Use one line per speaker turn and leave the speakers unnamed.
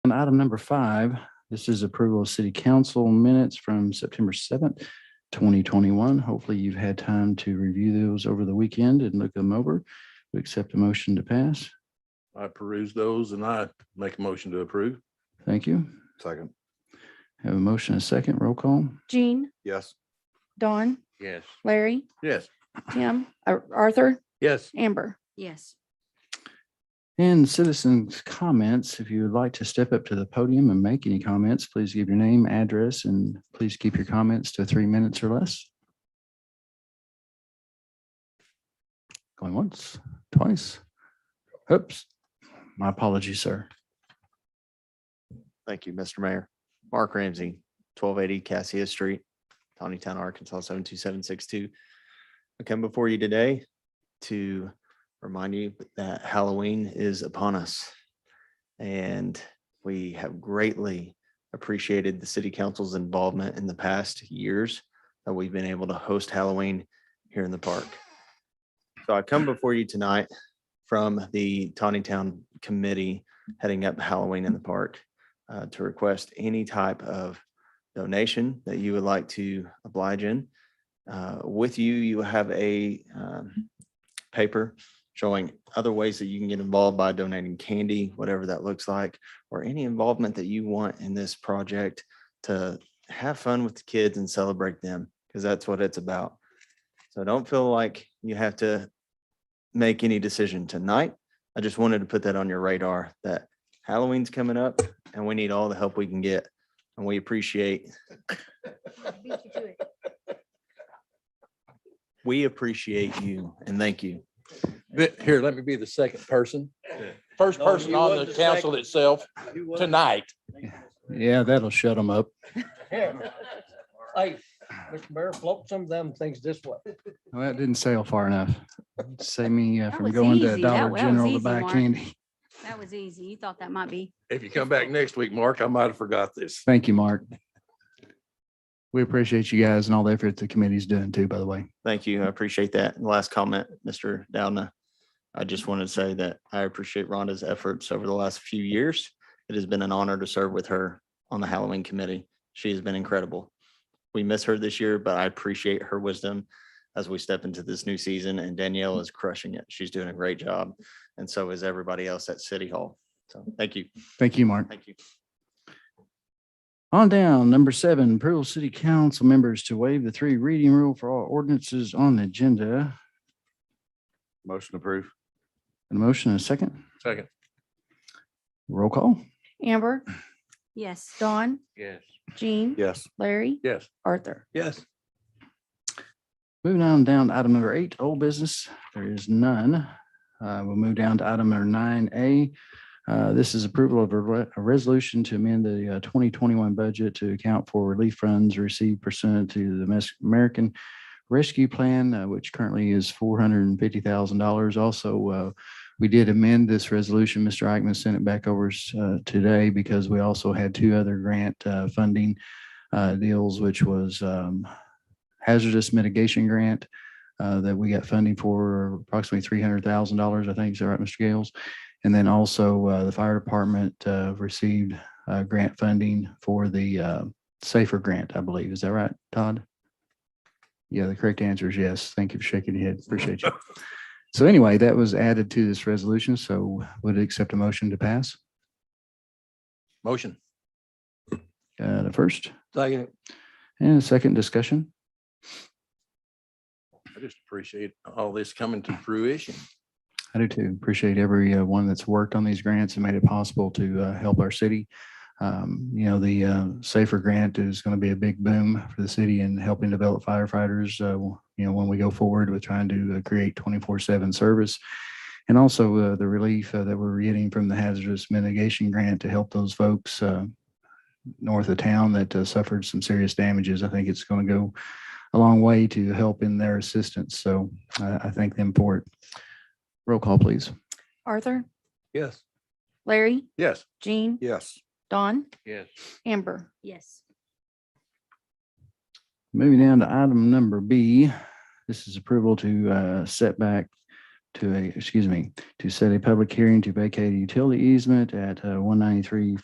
on item number five. This is approval of city council minutes from September seventh, twenty twenty-one. Hopefully you've had time to review those over the weekend and look them over. We accept a motion to pass.
I peruse those and I make a motion to approve.
Thank you.
Second.
Have a motion, and a second, roll call.
Jean,
Yes.
Dawn,
Yes.
Larry,
Yes.
Tim, Ar- Arthur,
Yes.
Amber.
yes,
And citizens' comments, if you would like to step up to the podium and make any comments, please give your name, address, and please keep your comments to three minutes or less. Going once, twice. Oops, my apologies, sir.
Thank you, Mr. Mayor. Mark Ramsey, twelve eighty Cassia Street, Tawnytown, Arkansas, seven two seven six two. I come before you today to remind you that Halloween is upon us. And we have greatly appreciated the city council's involvement in the past years that we've been able to host Halloween here in the park. So I come before you tonight from the Tawnytown Committee heading up Halloween in the park uh, to request any type of donation that you would like to oblige in. Uh, With you, you will have a um, paper showing other ways that you can get involved by donating candy, whatever that looks like, or any involvement that you want in this project to have fun with the kids and celebrate them, because that's what it's about. So don't feel like you have to make any decision tonight. I just wanted to put that on your radar that Halloween's coming up and we need all the help we can get. And we appreciate, we appreciate you and thank you.
Here, let me be the second person. First person on the council itself tonight.
Yeah, that'll shut them up.
Hey, Mr. Mayor, float some of them things this way.
Well, that didn't sail far enough. Save me uh,
That
from
was
going to
easy. That- that
Dollar
was
General to
easy,
buy
Mark.
candy.
that was easy. You thought that might be.
If you come back next week, Mark, I might have forgot this.
Thank you, Mark. We appreciate you guys and all the effort the committee's doing too, by the way.
Thank you. I appreciate that. And last comment, Mr. Downa. I just wanted to say that I appreciate Rhonda's efforts over the last few years. It has been an honor to serve with her on the Halloween committee. She has been incredible. We miss her this year, but I appreciate her wisdom as we step into this new season and Danielle is crushing it. She's doing a great job. And so is everybody else at City Hall. So thank you.
Thank you, Mark.
Thank you.
On down, number seven, approval of city council members to waive the three reading rule for all ordinances on the agenda.
Motion approved.
A motion and a second,
Second.
roll call.
Amber,
Yes,
Dawn,
Yes.
Jean,
Yes.
Larry,
Yes.
Arthur.
Yes.
Moving on down, to item number eight, old business, there is none. Uh, we'll move down to item number nine A. Uh, this is approval of a, re- a resolution to amend the uh, twenty twenty-one budget to account for relief funds received pursuant to the Mes- American Rescue Plan, uh, which currently is four hundred and fifty thousand dollars. Also, uh, we did amend this resolution. Mr. Eichmann sent it back over, uh, today because we also had two other grant, uh, funding, uh, deals, which was, um, hazardous mitigation grant uh, that we got funding for approximately three hundred thousand dollars, I think. Is that right, Mr. Gales? And then also uh, the fire department uh, received uh, grant funding for the uh, safer grant, I believe. Is that right, Todd? Yeah, the correct answer is yes. Thank you for shaking your head. Appreciate you. So anyway, that was added to this resolution, so would it accept a motion to pass.
Motion.
Uh, The first
Second.
and the second discussion.
I just appreciate all this coming to fruition.
I do too. Appreciate every uh, one that's worked on these grants and made it possible to uh, help our city. Um, You know, the uh, Safer Grant is going to be a big boom for the city in helping develop firefighters, uh, you know, when we go forward with trying to uh, create 24/7 service. And also uh, the relief uh, that we're getting from the hazardous mitigation grant to help those folks uh, north of town that uh, suffered some serious damages. I think it's going to go a long way to help in their assistance. So uh, I I thank them for it. Roll call, please.
Arthur,
Yes.
Larry,
Yes.
Jean,
Yes.
Dawn,
Yes.
Amber.
yes,
Moving down to item number B, this is approval to uh, set back to a, excuse me, to set a public hearing to vacate a utility easement at uh, one ninety-three